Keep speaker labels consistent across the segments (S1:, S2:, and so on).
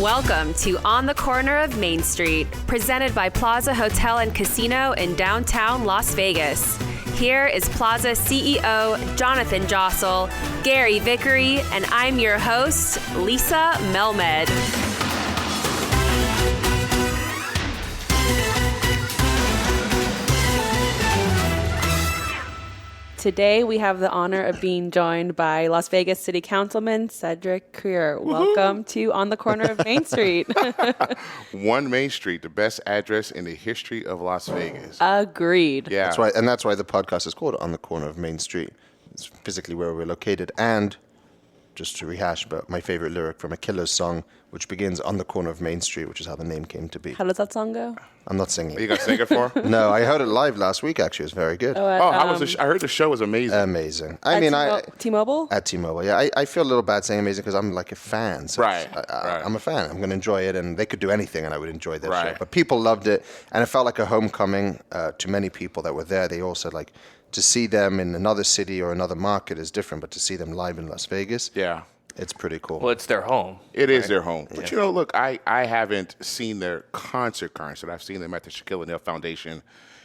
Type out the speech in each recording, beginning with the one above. S1: Welcome to On the Corner of Main Street, presented by Plaza Hotel and Casino in downtown Las Vegas. Here is Plaza CEO Jonathan Jossel, Gary Vickery, and I'm your host, Lisa Melmed.
S2: Today, we have the honor of being joined by Las Vegas City Councilman Cedric Creer. Welcome to On the Corner of Main Street.
S3: One Main Street, the best address in the history of Las Vegas.
S1: Uh,
S2: Agreed.
S3: yeah.
S4: That's why, and that's why the podcast is called "On the Corner of Main Street." It's physically where we're located, and just to rehash, but my favorite lyric from a Killer's song, which begins "On the Corner of Main Street," which is how the name came to be.
S2: How does that song go?
S4: I'm not
S3: Are you
S4: singing.
S3: going to sing it for? her?
S4: No, I heard it live last week. Actually, it was very good,
S3: Oh, I was. the sh- I heard the show was amazing.
S4: Uh, amazing. I mean, I
S2: T Mobile?
S4: at T-Mobile, yeah, I, I feel a little bad saying amazing because I'm like a fan. So it's-
S3: Right,
S4: I, I,
S3: right.
S4: I'm a fan. I'm going to enjoy it, and they could do anything, and I would enjoy their
S3: Right.
S4: show. But people loved it, and it felt like a homecoming uh, to many people that were there. They all said like to see them in another city or another market is different, but to see them live in Las Vegas,
S3: yeah.
S4: it's pretty cool.
S5: Well, it's their home.
S3: It is their home. But you know, look, I, I haven't seen their concert concert. I've seen them at the Shaquille O'Neal Foundation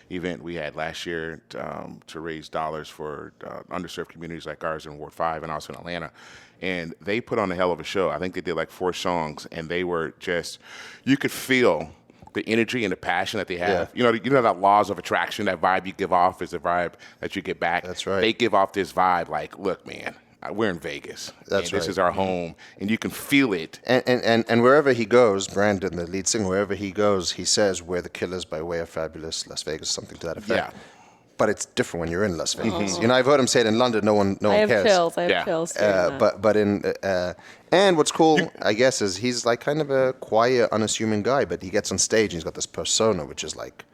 S3: event we had last year um, to raise dollars for uh, underserved communities like ours in Ward 5 and also in Atlanta. And they put on a hell of a show. I think they did like four songs, and they were just, you could feel the energy and the passion that they have.
S4: Yeah.
S3: You know, you know that laws of attraction, that vibe you give off is the vibe that you get back.
S4: That's right.
S3: They give off this vibe like, look, man, we're in Vegas. and
S4: That's
S3: This
S4: right. Mm-hmm.
S3: is our home, and you can feel it.
S4: and, and, and, and wherever he goes, Brandon, the lead singer, wherever he goes, he says, We're the killers by way of fabulous Las Vegas, something to that effect.
S3: Yeah. Mm-hmm.
S4: But it's different when you're in Las Vegas. You know, I've heard him say it in London, no one, no one
S2: I have
S4: cares.
S2: chills. I have
S3: Yeah.
S2: chills. hearing
S4: Uh,
S2: that.
S4: but but in uh, uh, and what's cool, I guess, is he's like kind of a quiet, unassuming guy, but he gets on stage and he's got this persona, which is like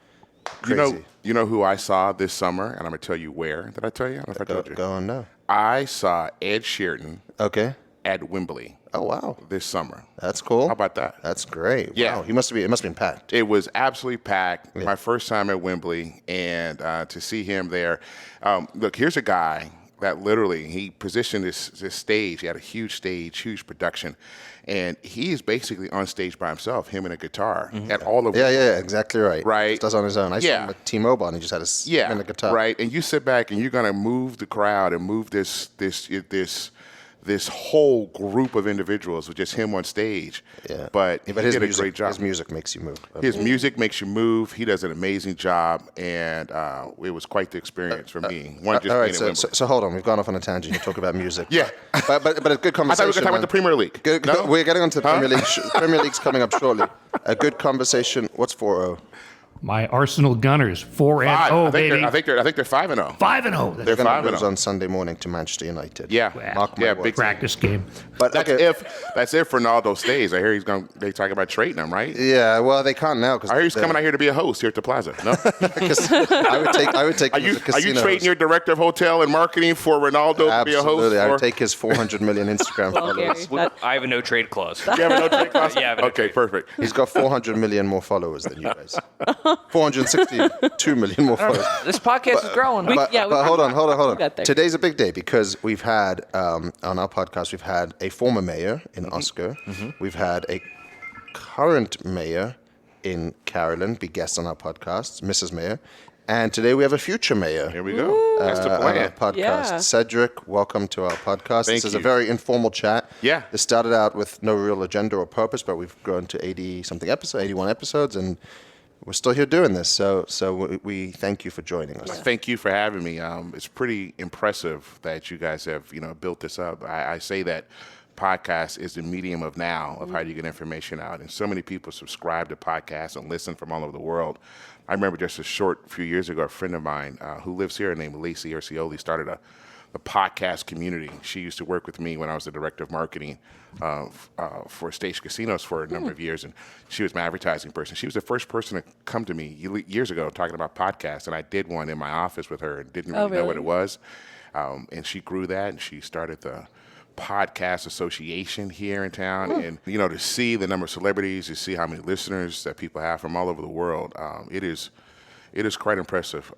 S3: You
S4: crazy.
S3: know, you know who I saw this summer, and I'm gonna tell you where. Did I tell you? I don't know if I
S4: go,
S3: told you.
S4: go on now.
S3: I saw Ed Sheeran
S4: Okay.
S3: at Wembley
S4: Oh wow,
S3: this summer.
S4: that's cool.
S3: How about that?
S4: That's great.
S3: Yeah.
S4: Wow. He must be. It must have been packed.
S3: It was absolutely packed. My first time at Wembley, and uh, to see him there. Um, look, here's a guy that literally he positioned this this stage. He had a huge stage, huge production, and he is basically on stage by himself, him and a guitar, at all of
S4: Mm-hmm. Yeah, yeah, exactly right.
S3: Right.
S4: Just does on his own. I
S3: Yeah.
S4: saw him at T-Mobile and he just had his
S3: yeah,
S4: and a guitar.
S3: right? And you sit back and you're gonna move the crowd and move this this this this whole group of individuals with just him on stage.
S4: Yeah.
S3: but
S4: Yeah,
S3: he
S4: but his
S3: did
S4: music,
S3: a great job.
S4: His music makes you move.
S3: His music makes you move. He does an amazing job, and uh, it was quite the experience for me. One just
S4: Uh, All
S3: being
S4: right,
S3: at
S4: so,
S3: Wembley.
S4: so, so hold on. We've gone off on a tangent. You talk about music.
S3: Yeah.
S4: but but but a
S3: I thought
S4: good conversation.
S3: we were gonna talk about the
S4: man.
S3: Premier League.
S4: Good,
S3: No?
S4: We're getting onto the Premier League. sh- Premier League's coming up shortly. A good conversation. What's oh? 4 0?
S6: My Arsenal Gunners, 4 and
S3: Five.
S6: 0,
S3: I, think
S6: baby.
S3: they're, I think they're I think they're five and oh. zero.
S6: 5 and 0.
S3: They're
S4: They're going
S3: five
S4: to
S3: and
S4: lose
S3: oh.
S4: on Sunday morning to Manchester United.
S3: Yeah,
S4: Mark my
S3: yeah,
S4: words.
S3: big
S6: practice game.
S4: But
S3: That's
S4: okay,
S3: if that's if Ronaldo stays. I hear he's going. to They talking about trading him, right?
S4: Yeah, well, they can't now
S3: I hear he's
S4: because
S3: coming out here to be a host here at the Plaza. No.
S4: I would take. I would take.
S3: Are you
S4: him as a
S3: are
S4: casino
S3: you trading
S4: host.
S3: your director of hotel and marketing for Ronaldo to be a host?
S4: Absolutely, I
S3: or-
S4: would take his 400 million Instagram
S2: Well,
S4: followers.
S2: Gary, that-
S5: I have a no trade clause.
S3: You have a no trade class?
S5: Yeah, I have a no
S3: Okay,
S5: trade.
S3: perfect.
S4: He's got 400 million more followers than you guys. 462 million more followers.
S5: This podcast is growing.
S4: but,
S2: yeah, we-
S4: but hold on, hold on, hold on.
S2: got there.
S4: Today's a big day because we've had um, on our podcast we've had a former mayor in
S3: Mm-hmm.
S4: Oscar, we've had a current mayor in Carolyn be guest on our podcast, Mrs. Mayor, and today we have a future mayor.
S3: Here we go. That's the
S4: uh, on our
S3: plan.
S4: podcast.
S2: Yeah.
S4: Cedric, welcome to our podcast.
S3: Thank
S4: this is a
S3: you.
S4: very informal chat.
S3: Yeah.
S4: It started out with no real agenda or purpose, but we've grown to 80 something episodes, 81 episodes, and we're still here doing this. So, so we, we thank you for joining us.
S3: Thank you for having me. Um, it's pretty impressive that you guys have you know built this up. I, I say that podcast is the medium of now of how you get information out, and so many people subscribe to podcasts and listen from all over the world. I remember just a short few years ago, a friend of mine uh, who lives here, named Lacey Ercioli, started a the podcast community. She used to work with me when I was the director of marketing uh, f- uh, for Stage Casinos for a
S2: Hmm.
S3: number of years, and she was my advertising person. She was the first person to come to me ye- years ago talking about podcasts, and I did one in my office with her and didn't really,
S2: Oh,
S3: know what it
S2: really?
S3: was. Um, and she grew that, and she started the podcast association here in town
S2: Hmm.
S3: and you know to see the number of celebrities to see how many listeners that people have from all over the world um, it is it is quite impressive